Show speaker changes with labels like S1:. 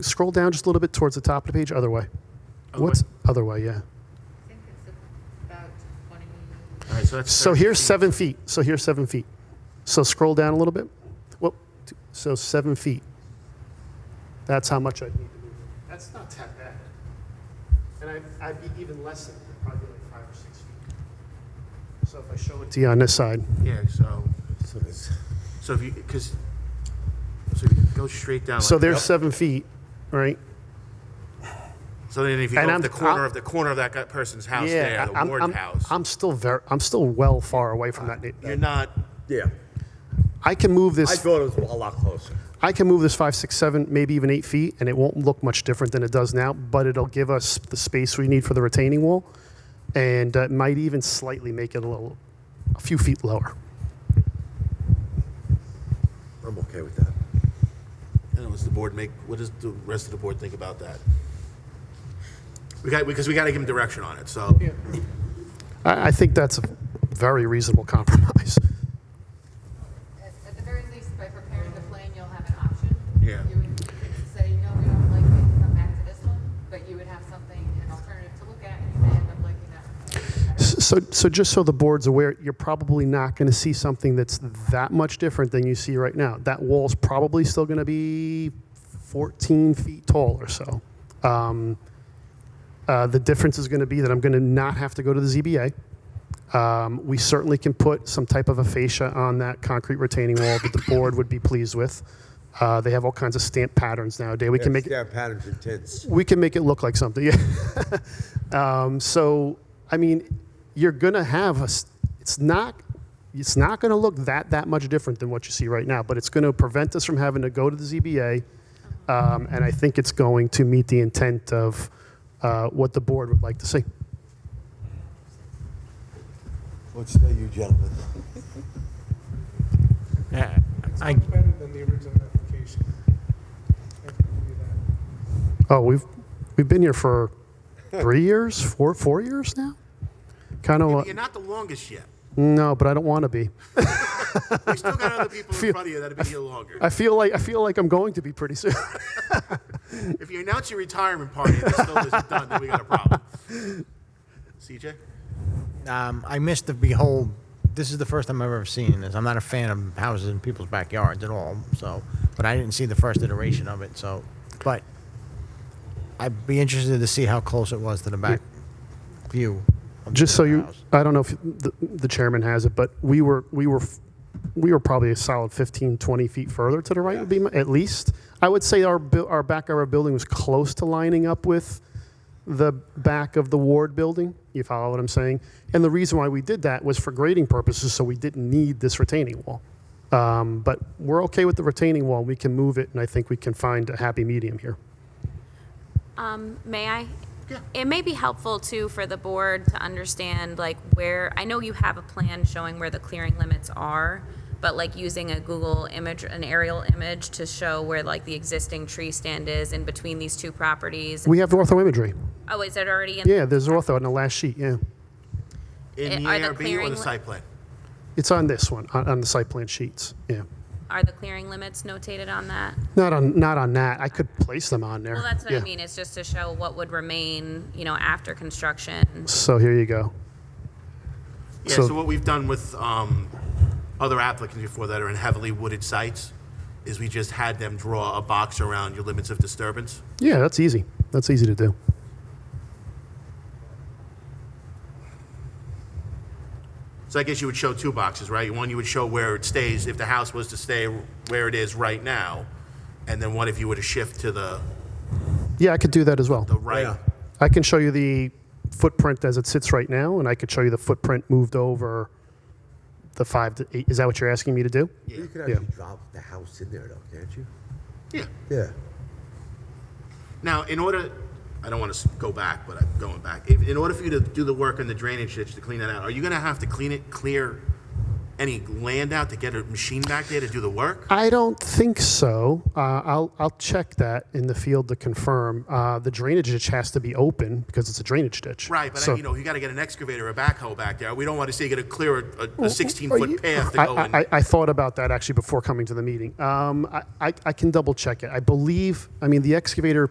S1: scroll down just a little bit towards the top of the page. Other way.
S2: Other
S1: Oh, What's other way? Yeah.
S3: I think it's about 20,
S2: All right, so that's.
S1: So
S2: 30
S1: here's
S2: feet.
S1: seven feet. So here's seven feet. So scroll down a little bit. Well, t- so seven feet. That's how much I need to move. it. That's not that bad. And I'd, I'd be even less than that, probably like five or six feet. So if I show it to you on this side,
S2: Yeah, so,
S4: So it's-
S2: so if you, because, so if you go straight down.
S1: so
S2: like
S1: there's
S2: that.
S1: seven feet, right?
S2: So then if you
S1: and
S2: go
S1: I'm-
S2: up the corner
S1: I'm-
S2: of, the corner of that guy- person's house there, the
S1: I'm,
S2: Ward
S1: I'm,
S2: house.
S1: I'm still very, I'm still well far away from that.
S2: You're
S1: na-
S2: not,
S4: Yeah,
S1: I can move
S4: I
S1: this.
S4: thought it was a lot closer.
S1: I can move this five, six, seven, maybe even eight feet, and it won't look much different than it does now, but it'll give us the space we need for the retaining wall, and uh, might even slightly make it a little, a few feet lower.
S4: I'm okay with that.
S2: and it was the board make, what does the rest of the board think about that? We got, because we got to give him direction on it, so.
S1: I, I think that's a very reasonable compromise.
S3: at at the very least, by preparing the plan, you'll have an option.
S2: Yeah.
S3: You would say, no, we don't like it, come back to this one, but you would have something, an alternative to look at, and you may end up liking that. one.
S1: So, so just so the board's aware, you're probably not going to see something that's that much different than you see right now. That wall's probably still going to be 14 feet tall or so. Um, uh, the difference is going to be that I'm going to not have to go to the ZBA. Um, we certainly can put some type of a fascia on that concrete retaining wall that the board would be pleased with. Uh, they have all kinds of stamp patterns nowadays. We can make it
S4: Yeah, patterns and tints.
S1: we can make it look like something. Yeah. um, so I mean, you're gonna have a. s- It's not. It's not gonna look that that much different than what you see right now, but it's gonna prevent us from having to go to the ZBA, um, and I think it's going to meet the intent of uh, what the board would like to see.
S4: What say you gentlemen?
S5: Yeah, I,
S6: It's better than the original application. I can give you that.
S1: Oh, we've we've been here for three years, four four years now. Kind of
S2: You're not the longest yet.
S1: no, but I don't want to be.
S2: We still got other people in front of you that'll be here longer.
S1: I feel like I feel like I'm going to be pretty soon.
S2: If you announce your retirement party and it still isn't done, then we got a problem. CJ?
S5: um, I missed the behold. This is the first time I've ever seen this. I'm not a fan of houses in people's backyards at all. So, but I didn't see the first iteration of it. So, but I'd be interested to see how close it was to the back view. of
S1: Just so
S5: the
S1: you,
S5: house.
S1: I don't know if the, the chairman has it, but we were, we were, f- we were probably a solid 15, 20 feet further to the right would be, my- at least. I would say our, bu- our back of our building was close to lining up with the back of the ward building. You follow what I'm saying? And the reason why we did that was for grading purposes, so we didn't need this retaining wall. Um, but we're okay with the retaining wall. We can move it, and I think we can find a happy medium here.
S7: Um, may I? It may be helpful too for the board to understand like where, I know you have a plan showing where the clearing limits are, but like using a Google image, an aerial image to show where like the existing tree stand is in between these two properties.
S1: We have ortho imagery.
S7: Oh, is it already in?
S1: Yeah, there's ortho on the last sheet, yeah.
S2: In the
S7: Eh, Are the
S2: ARB or
S7: clearing
S2: the
S7: li-
S2: site plan?
S1: It's on this one, on, on the site plan sheets. Yeah.
S7: Are the clearing limits notated on that?
S1: Not on, not on that. I could place them on there.
S7: Well, that's what
S1: Yeah.
S7: I mean. It's just to show what would remain, you know, after construction.
S1: So here you go.
S2: Yeah,
S1: So-
S2: so what we've done with um, other applicants before that are in heavily wooded sites is we just had them draw a box around your limits of disturbance.
S1: Yeah, that's easy. That's easy to do.
S2: So I guess you would show two boxes, right? One you would show where it stays, if the house was to stay where it is right now, and then one if you were to shift to the,
S1: Yeah, I could do that as well.
S2: the right.
S4: Yeah.
S1: I can show you the footprint as it sits right now, and I could show you the footprint moved over the five to eight. Is that what you're asking me to do?
S4: You can
S1: Yeah.
S4: actually drop the house in there though, can't you?
S2: Yeah.
S4: Yeah.
S2: Now, in order, I don't want to go back, but I'm going back. If- In order for you to do the work on the drainage ditch to clean that out, are you going to have to clean it clear any land out to get a machine back there to do the work?
S1: I don't think so. Uh, I'll, I'll check that in the field to confirm. Uh, the drainage ditch has to be open because it's a drainage ditch.
S2: Right, but,
S1: So-
S2: I- you know, you gotta get an excavator or a backhoe back there. We don't wanna see you gotta clear a- a
S1: Are you-
S2: sixteen-foot path to
S1: I-
S2: go in.
S1: I, I, I thought about that actually before coming to the meeting. Um, I, I, I can double check it. I believe, I mean, the excavator